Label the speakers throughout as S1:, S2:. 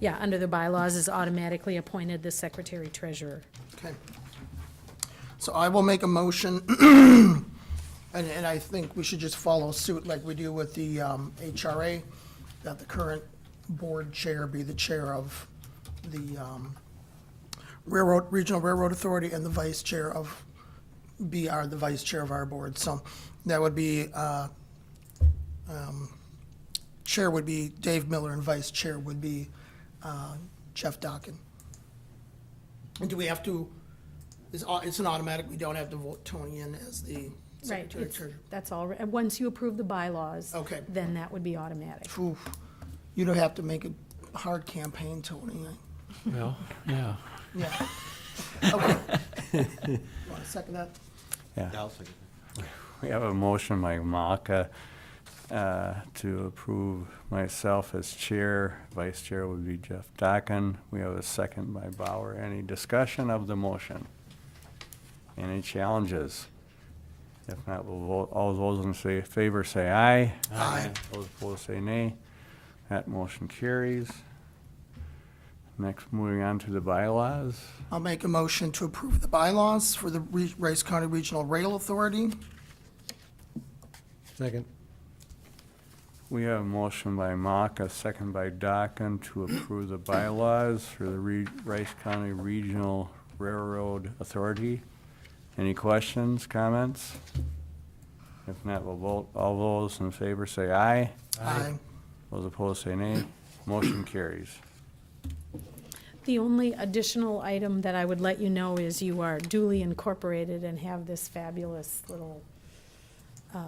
S1: yeah, under the bylaws is automatically appointed the secretary treasurer.
S2: Okay. So I will make a motion, and, and I think we should just follow suit like we do with the um, HRA, that the current board chair be the chair of the um, Railroad, Regional Railroad Authority and the vice chair of, be our, the vice chair of our board. So that would be, uh, um, chair would be Dave Miller and vice chair would be uh, Jeff Dockin. And do we have to, it's, au- it's an automatic, we don't have to vote Tony in as the
S1: Right,
S2: secretary
S1: it's-
S2: treasurer?
S1: that's all, and once you approve the bylaws.
S2: Okay.
S1: Then that would be automatic.
S2: Phew, you don't have to make a hard campaign, Tony.
S3: Well, yeah.
S2: Yeah. Okay. Want to second that?
S4: We have a motion by Maka uh, to approve myself as chair. Vice chair would be Jeff Dakin. We have a second by Bauer. Any discussion of the motion? Any challenges? If not, we'll vote. All those in say- favor say aye.
S2: Aye.
S4: Those opposed say nay. That motion carries. Next, moving on to the bylaws.
S2: I'll make a motion to approve the bylaws for the Re- Rice County Regional Rail Authority.
S3: Second.
S4: We have a motion by Mock, a second by Dockin to approve the bylaws for the Re- Rice County Regional Railroad Authority. Any questions, comments? If not, we'll vote. All those in favor say aye.
S2: Aye.
S4: Those opposed say nay. Motion carries.
S1: The only additional item that I would let you know is you are duly incorporated and have this fabulous little uh,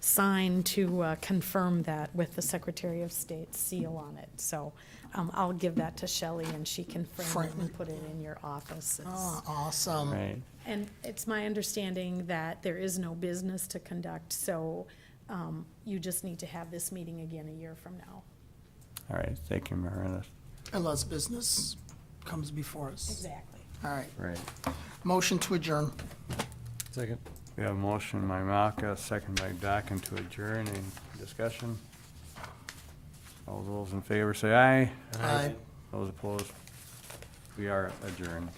S1: sign to uh, confirm that with the Secretary of State's seal on it. So um, I'll give that to Shelley and she can frame it
S2: Frame
S1: and
S2: it.
S1: put it in your office. It's-
S2: Ah, Awesome.
S4: Right.
S1: And it's my understanding that there is no business to conduct, so um, you just need to have this meeting again a year from now.
S4: All right. Thank you, Meredith.
S2: Unless business comes before us.
S1: Exactly.
S2: All right.
S4: Right.
S2: Motion to adjourn.
S3: Second.
S4: We have a motion by Mock, a second by Dockin to adjourn. Any discussion? All those in favor say aye.
S2: Aye.
S4: Those opposed? We are adjourned.